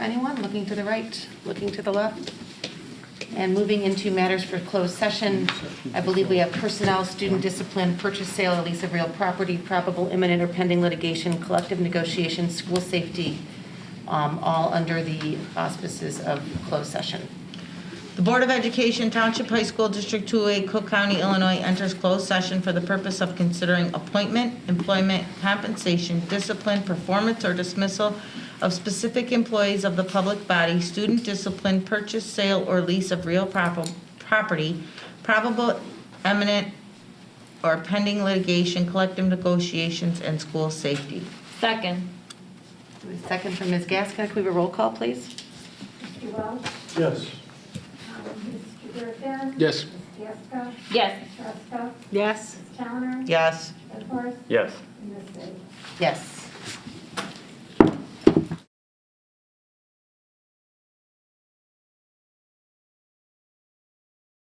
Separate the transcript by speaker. Speaker 1: looking to the right, looking to the left. And moving into matters for closed session, I believe we have personnel, student discipline, purchase, sale, or lease of real property, probable imminent or pending litigation, collective negotiations, school safety, um, all under the auspices of closed session.
Speaker 2: The Board of Education Township High School District 2A, Cook County, Illinois enters closed session for the purpose of considering appointment, employment, compensation, discipline, performance, or dismissal of specific employees of the public body, student discipline, purchase, sale, or lease of real propo- property, probable eminent or pending litigation, collective negotiations, and school safety.
Speaker 3: Second.
Speaker 1: Second from Ms. Gaskin, can we have a roll call, please?
Speaker 4: Mr. Welch,
Speaker 5: Yes.
Speaker 4: um, Mr. Durkin.
Speaker 6: Yes.
Speaker 4: Ms. Gasko,
Speaker 3: Yes.
Speaker 4: Ms. Ruska,
Speaker 1: Yes.
Speaker 4: Ms. Towner.
Speaker 2: Yes.
Speaker 4: Ms. Horst.
Speaker 6: Yes.
Speaker 4: And Ms. Lee.
Speaker 1: Yes.